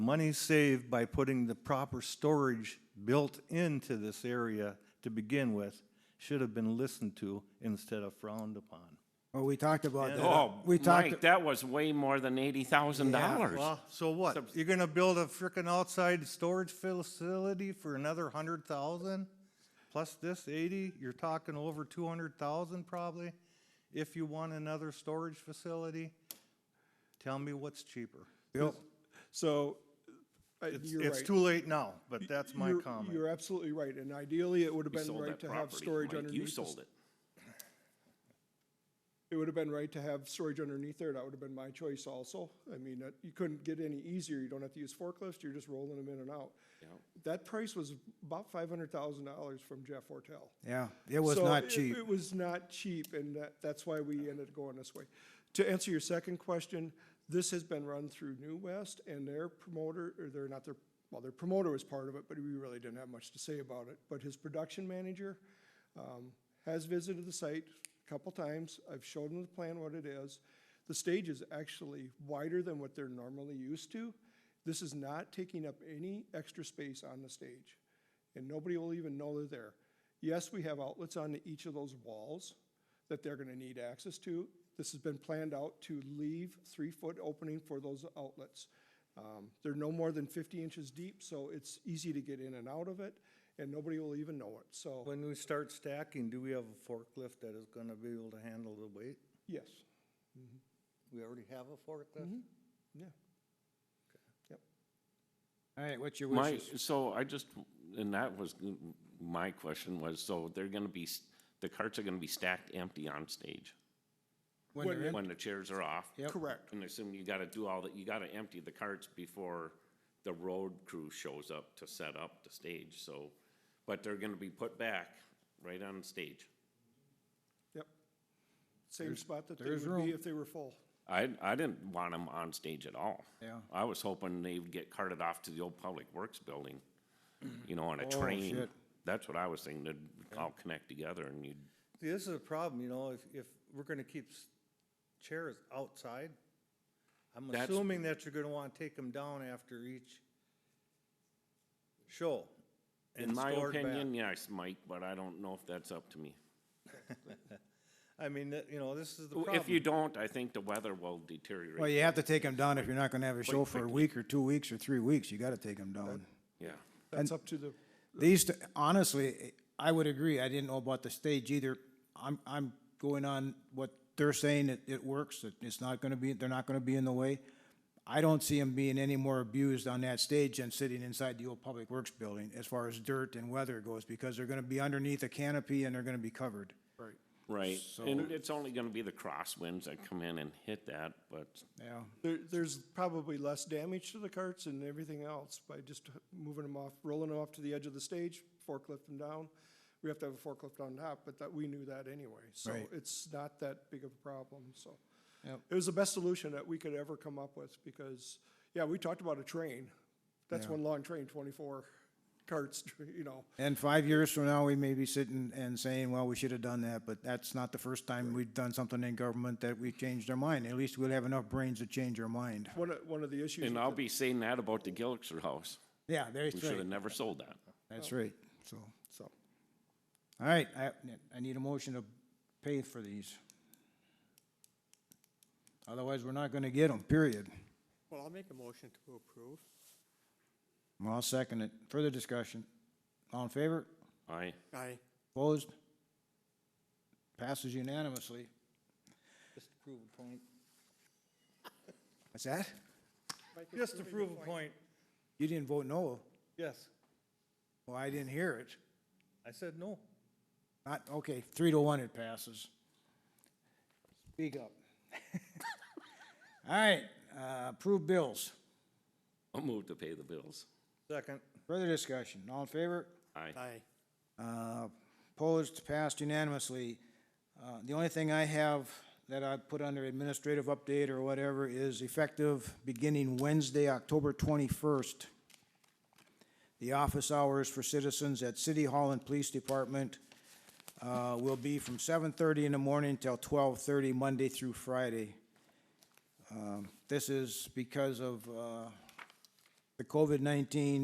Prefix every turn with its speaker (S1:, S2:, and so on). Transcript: S1: Money saved by putting the proper storage built into this area to begin with should have been listened to instead of frowned upon.
S2: Well, we talked about that.
S3: Oh,
S2: We talked,
S3: Mike, that was way more than eighty thousand dollars.
S1: Well, so what? You're gonna build a frickin' outside storage facility for another hundred thousand? Plus this eighty, you're talking over two hundred thousand probably, if you want another storage facility. Tell me what's cheaper.
S4: So, uh,
S1: It's,
S4: you're
S1: it's
S4: right.
S1: too late now, but that's my
S4: You're-
S1: comment.
S4: You're absolutely right, and ideally, it would have
S3: You
S4: been
S3: sold
S4: right
S3: that
S4: to have
S3: property,
S4: storage
S3: Mike,
S4: underneath.
S3: you
S4: the
S3: sold
S4: s-
S3: it.
S4: It would have been right to have storage underneath there, that would have been my choice also. I mean, that- you couldn't get any easier, you don't have to use forklifts, you're just rolling them in and out. That price was about five hundred thousand dollars from Jeff Ortell.
S2: yeah, it was
S4: So
S2: not
S4: it-
S2: cheap.
S4: It was not cheap, and that, that's why we ended up going this way. To answer your second question, this has been run through New West and their promoter, or they're not their, well, their promoter was part of it, but we really didn't have much to say about it. But his production manager, um, has visited the site a couple times. I've showed him the plan, what it is. The stage is actually wider than what they're normally used to. This is not taking up any extra space on the stage, and nobody will even know they're there. Yes, we have outlets on each of those walls that they're gonna need access to. This has been planned out to leave three-foot opening for those outlets. Um, They're no more than fifty inches deep, so it's easy to get in and out of it, and nobody will even know it, so.
S1: When we start stacking, do we have a forklift that is gonna be able to handle the weight?
S4: Yes,
S1: We already have a forklift?
S4: yeah. Yep.
S2: All right, what's your
S3: My,
S2: wishes?
S3: so I just, and that was, mm, my question was, so they're gonna be, s- the carts are gonna be stacked empty on stage
S2: When they're in-
S3: when the chairs are off?
S2: Yep.
S4: Correct.
S3: And I assume you gotta do all that, you gotta empty the carts before the road crew shows up to set up the stage, so, but they're gonna be put back right on stage.
S4: Yep. Same spot that they
S2: there's
S4: would be
S2: room.
S4: if they were full.
S3: I, I didn't want them on stage at all.
S2: Yeah.
S3: I was hoping they would get carted off to the old Public Works building,
S1: Mm.
S3: you know, on a
S1: Oh,
S3: train.
S2: shit.
S3: That's what I was thinking, they'd all connect together and you'd,
S1: See, this is a problem, you know, if, if we're gonna keep s- chairs outside, I'm
S3: That's-
S1: assuming that you're gonna wanna take them down after each show.
S3: in
S1: and
S3: my
S1: stored back.
S3: opinion, yes, Mike, but I don't know if that's up to me.
S1: I mean, that- you know, this is the problem.
S3: If you don't, I think the weather will deteriorate.
S2: Well, you have to take them down if you're not gonna have a show for a week or two weeks or three weeks, you gotta take them down.
S3: Yeah,
S4: That's up to the,
S2: These, t- honestly, I would agree, I didn't know about the stage either. I'm, I'm going on what they're saying, it, it works, that it's not gonna be, they're not gonna be in the way. I don't see them being any more abused on that stage than sitting inside the old Public Works building as far as dirt and weather goes, because they're gonna be underneath a canopy and they're gonna be covered.
S3: right, and it's only gonna be the crosswinds that come in and hit that, but
S2: Yeah.
S4: there, there's probably less damage to the carts and everything else by just moving them off, rolling them off to the edge of the stage, forklift them down. We have to have a forklift on top, but that, we knew that anyway, so
S2: Right.
S4: it's not that big of a problem, so.
S2: Yep.
S4: It was the best solution that we could ever come up with, because, yeah, we talked about a train. That's one long train, twenty-four carts, you know.
S2: And five years from now, we may be sitting and saying, well, we should have done that, but that's not the first time we've done something in government that we changed our mind. At least we'll have enough brains to change our mind.
S4: One of, one of the issues.
S3: And
S4: with
S3: I'll
S4: the-
S3: be saying that about the Gilxer House.
S2: Yeah, that's
S3: We should have
S2: right.
S3: never sold that.
S2: That's right, so.
S4: So.
S2: All right, I, I need a motion to pay for these. Otherwise, we're not gonna get them, period.
S5: Well, I'll make a motion to approve.
S2: Well, I'll second it. Further discussion? All in favor?
S3: Aye.
S5: Aye.
S2: Opposed? Passes unanimously.
S1: Just to prove a point.
S2: What's that?
S1: Just to prove a point,
S2: You didn't vote no.
S1: yes.
S2: Well, I didn't hear it.
S1: I said no.
S2: Not, okay, three to one it passes. Speak up. All right, uh, approve bills.
S3: I'll move to pay the bills.
S1: Second,
S2: Further discussion, all in favor?
S3: Aye.
S5: Aye.
S2: Uh, Opposed, passed unanimously. Uh, The only thing I have that I put under administrative update or whatever is effective beginning Wednesday, October 21st. The office hours for citizens at City Hall and Police Department uh, will be from 7:30 in the morning till 12:30, Monday through Friday. Um, This is because of uh, the COVID-19